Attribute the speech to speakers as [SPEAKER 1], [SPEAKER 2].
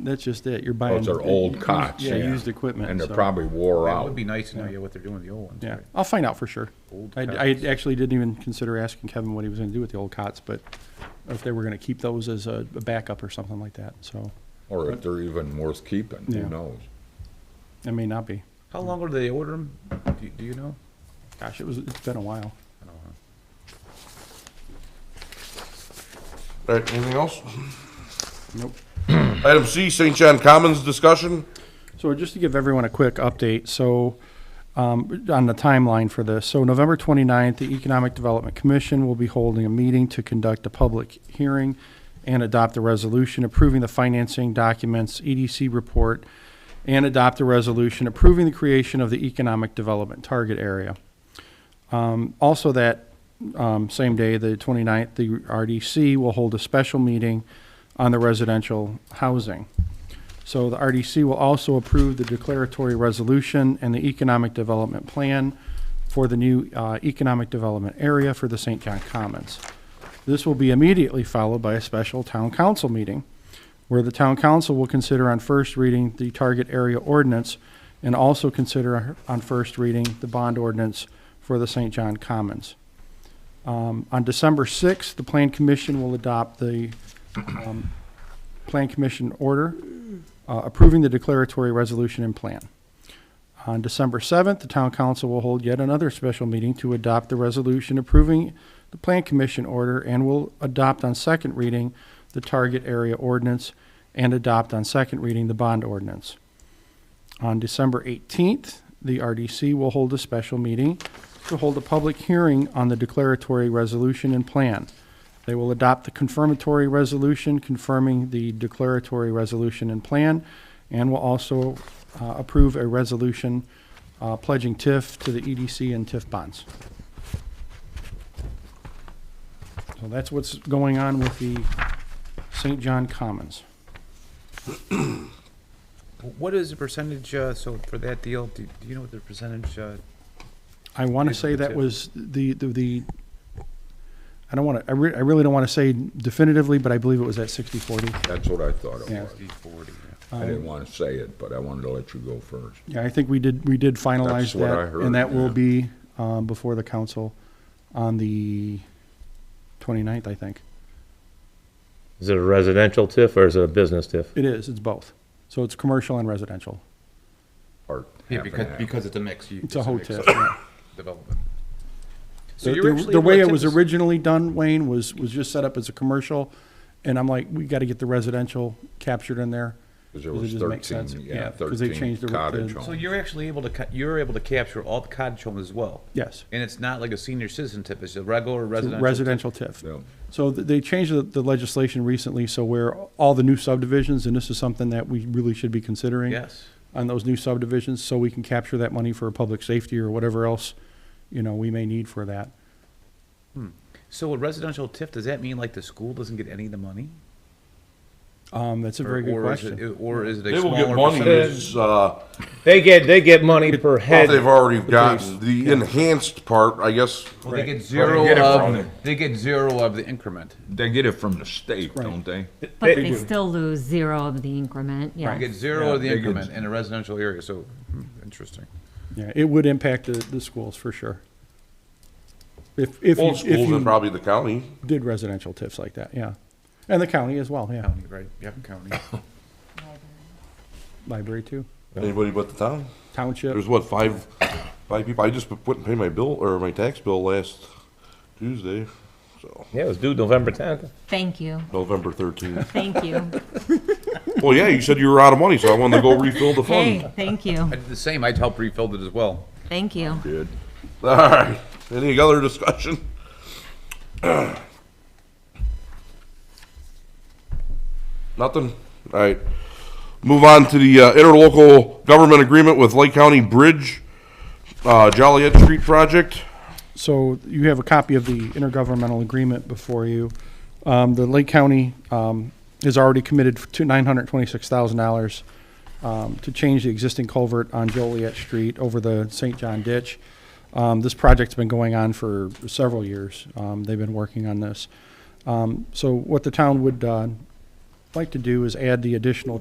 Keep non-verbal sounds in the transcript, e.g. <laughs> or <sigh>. [SPEAKER 1] that's just it, you're buying.
[SPEAKER 2] Those are
[SPEAKER 1] used-
[SPEAKER 2] old cots.
[SPEAKER 1] Yeah, used equipment.
[SPEAKER 2] And they're
[SPEAKER 1] so-
[SPEAKER 2] probably wore
[SPEAKER 3] It would
[SPEAKER 2] out.
[SPEAKER 3] be nice to know yeah, what they're doing with the old ones.
[SPEAKER 1] Yeah,
[SPEAKER 3] right?
[SPEAKER 1] I'll find out for sure.
[SPEAKER 3] Old
[SPEAKER 1] I, I
[SPEAKER 3] cots.
[SPEAKER 1] actually didn't even consider asking Kevin what he was gonna do with the old cots, but if they were gonna keep those as a a backup or something like that, so
[SPEAKER 2] Or if they're even worth keeping,
[SPEAKER 1] Yeah.
[SPEAKER 2] who knows?
[SPEAKER 1] it may not be.
[SPEAKER 3] How long ago did they order them? Do, do you know?
[SPEAKER 1] Gosh, it was, it's been a while.
[SPEAKER 3] I don't know.
[SPEAKER 4] All right, anything else?
[SPEAKER 1] Nope.
[SPEAKER 4] <clears throat> Item C, St. John Commons discussion.
[SPEAKER 1] So just to give everyone a quick update, so um, on the timeline for this, so November 29th, the Economic Development Commission will be holding a meeting to conduct a public hearing and adopt a resolution approving the financing documents, EDC report, and adopt a resolution approving the creation of the Economic Development Target Area. Um, Also that um, same day, the 29th, the RDC will hold a special meeting on the residential housing. So the RDC will also approve the declaratory resolution and the economic development plan for the new uh, economic development area for the St. John Commons. This will be immediately followed by a special town council meeting where the town council will consider on first reading the target area ordinance and also consider on first reading the bond ordinance for the St. John Commons. Um, On December 6th, the Plan Commission will adopt the um, Plan Commission order uh, approving the declaratory resolution and plan. On December 7th, the town council will hold yet another special meeting to adopt the resolution approving the plan commission order and will adopt on second reading the target area ordinance and adopt on second reading the bond ordinance. On December 18th, the RDC will hold a special meeting to hold a public hearing on the declaratory resolution and plan. They will adopt the confirmatory resolution confirming the declaratory resolution and plan, and will also uh, approve a resolution uh, pledging TIF to the EDC and TIF bonds. So that's what's going on with the St. John Commons.
[SPEAKER 3] What is the percentage, uh, so for that deal, do, do you know what the percentage, uh,
[SPEAKER 1] I want to
[SPEAKER 3] Here's
[SPEAKER 1] say
[SPEAKER 3] the
[SPEAKER 1] that
[SPEAKER 3] TIF.
[SPEAKER 1] was the, the- the, I don't want to, I re- I really don't want to say definitively, but I believe it was at 60/40.
[SPEAKER 2] That's what I thought it
[SPEAKER 1] Yeah. Um,
[SPEAKER 2] was.
[SPEAKER 3] 60, 40? yeah.
[SPEAKER 2] I didn't want to say it, but I wanted to let you go first.
[SPEAKER 1] Yeah, I think we did, we did finalize
[SPEAKER 2] That's what I
[SPEAKER 1] that,
[SPEAKER 2] heard,
[SPEAKER 1] and that will
[SPEAKER 2] yeah.
[SPEAKER 1] be um, before the council on the 29th, I think.
[SPEAKER 5] Is it a residential TIF or is it a business TIF?
[SPEAKER 1] It is, it's both. So it's commercial and residential.
[SPEAKER 2] Or
[SPEAKER 3] Yeah,
[SPEAKER 2] half and
[SPEAKER 3] because,
[SPEAKER 2] half.
[SPEAKER 3] because it's a mix. you-
[SPEAKER 1] It's a whole
[SPEAKER 3] mix
[SPEAKER 1] TIF.
[SPEAKER 3] of
[SPEAKER 1] yeah.
[SPEAKER 3] Development. So
[SPEAKER 1] The
[SPEAKER 3] you're
[SPEAKER 1] the-
[SPEAKER 3] actually
[SPEAKER 1] the
[SPEAKER 3] able to
[SPEAKER 1] way it
[SPEAKER 3] tip
[SPEAKER 1] was
[SPEAKER 3] us-
[SPEAKER 1] originally done, Wayne, was, was just set up as a commercial, and I'm like, we got to get the residential captured in there.
[SPEAKER 2] Because there
[SPEAKER 1] 'cause it
[SPEAKER 2] was
[SPEAKER 1] doesn't make sense.
[SPEAKER 2] 13, yeah,
[SPEAKER 1] Because they
[SPEAKER 2] 13
[SPEAKER 1] changed the-
[SPEAKER 2] cottage
[SPEAKER 1] the-
[SPEAKER 2] homes.
[SPEAKER 3] So you're actually able to, ca- you're able to capture all the cottage homes as well?
[SPEAKER 1] Yes.
[SPEAKER 3] And it's not like a senior citizen tip, it's a regular
[SPEAKER 1] It's a
[SPEAKER 3] residential?
[SPEAKER 1] Residential TIF.
[SPEAKER 2] Yeah.
[SPEAKER 1] So th- they changed the- the legislation recently, so where all the new subdivisions, and this is something that we really should be considering.
[SPEAKER 3] Yes.
[SPEAKER 1] on those new subdivisions, so we can capture that money for public safety or whatever else, you know, we may need for that.
[SPEAKER 3] So a residential TIF, does that mean like the school doesn't get any of the money?
[SPEAKER 1] Um, that's a very
[SPEAKER 3] Or-
[SPEAKER 1] good
[SPEAKER 3] or is it-
[SPEAKER 1] question.
[SPEAKER 3] Or is it
[SPEAKER 4] They
[SPEAKER 3] a
[SPEAKER 4] will get
[SPEAKER 3] smaller
[SPEAKER 4] money,
[SPEAKER 3] percentage?
[SPEAKER 4] it's, uh,
[SPEAKER 5] They get, they get money per
[SPEAKER 4] what
[SPEAKER 5] head.
[SPEAKER 4] they've already gotten, the enhanced part, I guess.
[SPEAKER 3] Well, they get zero
[SPEAKER 2] They get it from
[SPEAKER 3] of,
[SPEAKER 2] the-
[SPEAKER 3] they get zero of the increment.
[SPEAKER 2] They get it from the state, don't they?
[SPEAKER 5] They
[SPEAKER 6] But they
[SPEAKER 5] do.
[SPEAKER 6] still lose zero of the increment,
[SPEAKER 3] They get
[SPEAKER 6] yes.
[SPEAKER 3] zero of the
[SPEAKER 2] They get-
[SPEAKER 3] increment in a residential area, so, hmm, interesting.
[SPEAKER 1] Yeah, it would impact the, the schools for sure. If, if, you-
[SPEAKER 4] Old
[SPEAKER 1] if
[SPEAKER 4] schools and
[SPEAKER 1] you
[SPEAKER 4] probably the county.
[SPEAKER 1] did residential TIFs like that, yeah. And the county as well, yeah,
[SPEAKER 3] County, right, yeah, county.
[SPEAKER 1] library too,
[SPEAKER 4] Anybody but the town.
[SPEAKER 1] township,
[SPEAKER 4] There's what, five, five people? I just went and paid my bill, or my tax bill last Tuesday, so,
[SPEAKER 5] Yeah, it was due November 10th.
[SPEAKER 6] Thank you,
[SPEAKER 4] November
[SPEAKER 1] <laughs>
[SPEAKER 4] thirteenth.
[SPEAKER 6] thank you.
[SPEAKER 4] Well, yeah, you said you were out of money, so I wanted to go refill the fund.
[SPEAKER 6] Hey, thank you,
[SPEAKER 3] I did the same, I'd help refill it as well.
[SPEAKER 6] thank you.
[SPEAKER 2] Did.
[SPEAKER 4] All right, any other discussion? <clears throat> Nothing? All right. Move on to the uh, interlocal government agreement with Lake County Bridge, uh, Joliet Street Project.
[SPEAKER 1] so you have a copy of the intergovernmental agreement before you. Um, the Lake County, um, is already committed to nine hundred twenty-six thousand dollars um, to change the existing culvert on Joliet Street over the St. John Ditch. Um, This project's been going on for several years. Um, They've been working on this. Um, So what the town would uh, like to do is add the additional